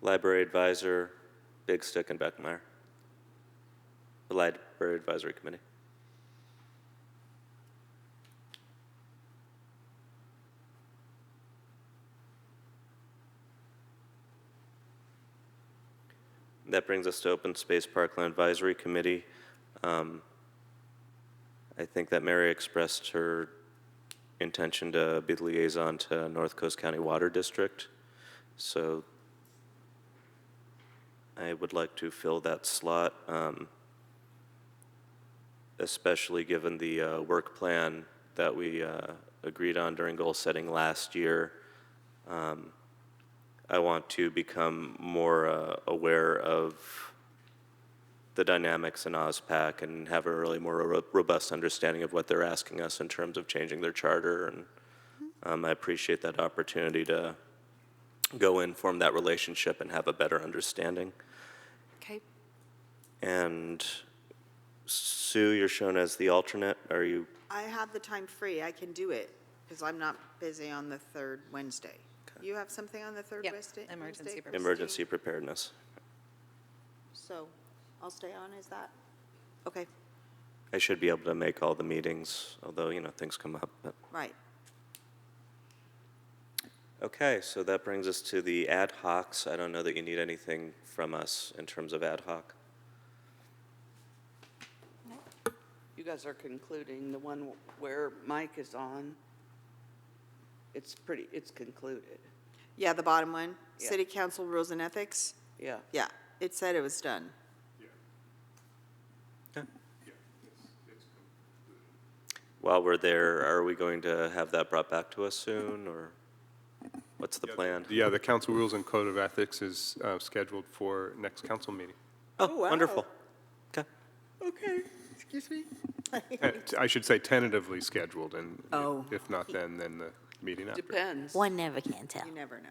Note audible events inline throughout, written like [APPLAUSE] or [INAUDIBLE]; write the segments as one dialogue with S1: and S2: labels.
S1: library advisor, Big Stick, and Beckmeyer. The library advisory committee. That brings us to Open Space Parkland Advisory Committee. Um, I think that Mary expressed her intention to be the liaison to North Coast County Water District, so I would like to fill that slot, um, especially given the uh, work plan that we uh, agreed on during goal setting last year. Um, I want to become more uh, aware of the dynamics in OSPAC and have a really more ro- robust understanding of what they're asking us in terms of changing their charter. And um, I appreciate that opportunity to go in, form that relationship, and have a better understanding.
S2: Okay.
S1: And Sue, you're shown as the alternate. Are you?
S3: I have the time free, I can do it, because I'm not busy on the third Wednesday. You have something on the third
S2: Yep,
S3: Wednesday?
S2: emergency
S3: Wednesday?
S2: preparedness.
S1: Emergency preparedness.
S3: So, I'll stay on, is that? Okay,
S1: I should be able to make all the meetings, although, you know, things come up. But.
S3: right.
S1: Okay, so that brings us to the ad hocs. I don't know that you need anything from us in terms of ad hoc.
S4: You guys are concluding the one where Mike is on. It's pretty, it's concluded.
S3: Yeah, the bottom one,
S4: Yeah.
S3: City Council Rules and Ethics,
S4: Yeah,
S3: yeah, it said it was done.
S1: While we're there, are we going to have that brought back to us soon, or what's the plan?
S5: Yeah, the council rules and code of ethics is uh, scheduled for next council meeting.
S1: Oh,
S3: wow.
S1: wonderful. Okay.
S4: okay, excuse me.
S5: Uh, t- I should say tentatively scheduled, and if-
S3: Oh.
S5: if not then, then the meeting after.
S4: Depends.
S6: One never can tell.
S3: You never know.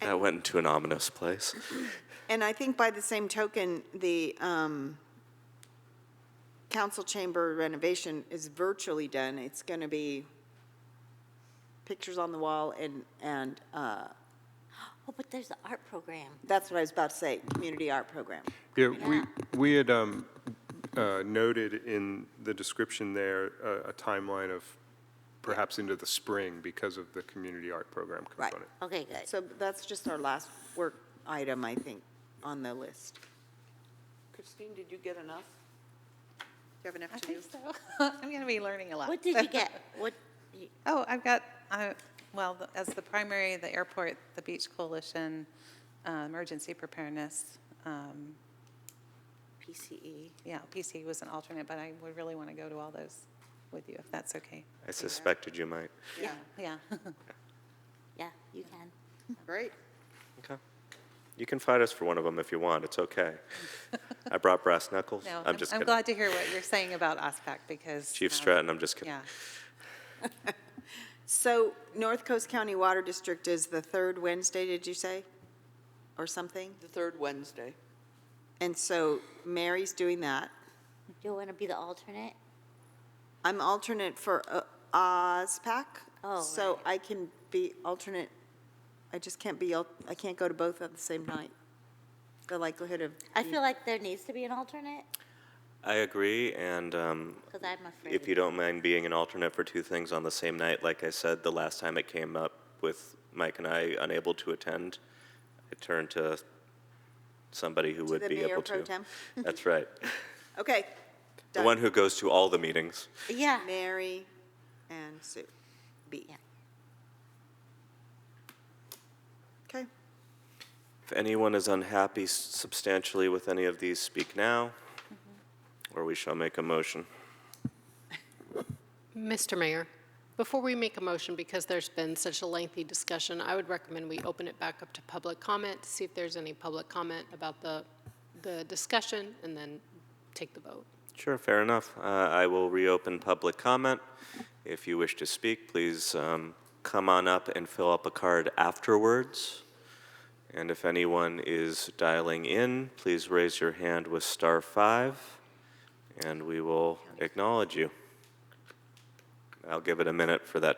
S1: That went into an ominous place.
S3: And I think by the same token, the um, council chamber renovation is virtually done. It's going to be pictures on the wall and, and uh,
S6: Oh, but there's the art program.
S3: That's what I was about to say, community art program.
S5: Yeah, we, we had um, uh, noted in the description there uh, a timeline of perhaps into the spring because of the community art program
S3: Right.
S5: component.
S6: Okay, good.
S3: So that's just our last work item, I think, on the list. Do
S4: Christine, did you get enough?
S3: you have enough
S2: I
S3: to do?
S2: think so. [LAUGHS] I'm going to be learning a lot.
S6: What did you [LAUGHS] get? What, you-
S2: [LAUGHS] Oh, I've got, uh, well, the- as the primary, the airport, the beach coalition, uh, emergency preparedness. um,
S6: PCE?
S2: Yeah, PC was an alternate, but I would really want to go to all those with you, if that's okay.
S1: I suspected you might.
S3: Yeah,
S6: [LAUGHS]
S2: Yeah.
S6: Yeah, you can.
S3: great.
S1: Okay. You can fight us for one of them if you want. It's okay. I brought brass knuckles.
S2: [LAUGHS] No,
S1: I'm just
S2: I'm
S1: kidding.
S2: glad to hear what you're saying about OSPAC because.
S1: Chief
S2: um,
S1: Stratton, I'm just kidding.
S2: Yeah.
S3: So North Coast County Water District is the third Wednesday, did you say? Or something?
S4: The third Wednesday.
S3: And so Mary's doing that.
S6: Do you want to be the alternate?
S3: I'm alternate for uh, OSPAC.
S6: Oh,
S3: So I can be alternate, I just can't be, al- I can't go to both at the same night. The likelihood of.
S6: I feel like there needs to be an alternate,
S1: I agree, and um,
S6: because I'm afraid.
S1: if you don't mind being an alternate for two things on the same night, like I said, the last time it came up with Mike and I unable to attend, I turned to somebody who would
S3: the
S1: be
S3: mayor
S1: able to.
S3: pro tem?
S1: That's right.
S3: Okay.
S1: The
S3: done.
S1: one who goes to all the meetings.
S6: Yeah,
S3: Mary and Sue. B.
S6: Yeah.
S3: Okay.
S1: If anyone is unhappy s- substantially with any of these, speak now, or we shall make a motion.
S7: Mr. Mayor, before we make a motion, because there's been such a lengthy discussion, I would recommend we open it back up to public comment, see if there's any public comment about the, the discussion, and then take the vote.
S1: Sure, fair enough. Uh, I will reopen public comment. If you wish to speak, please um, come on up and fill up a card afterwards. And if anyone is dialing in, please raise your hand with star five, and we will acknowledge you. I'll give it a minute for that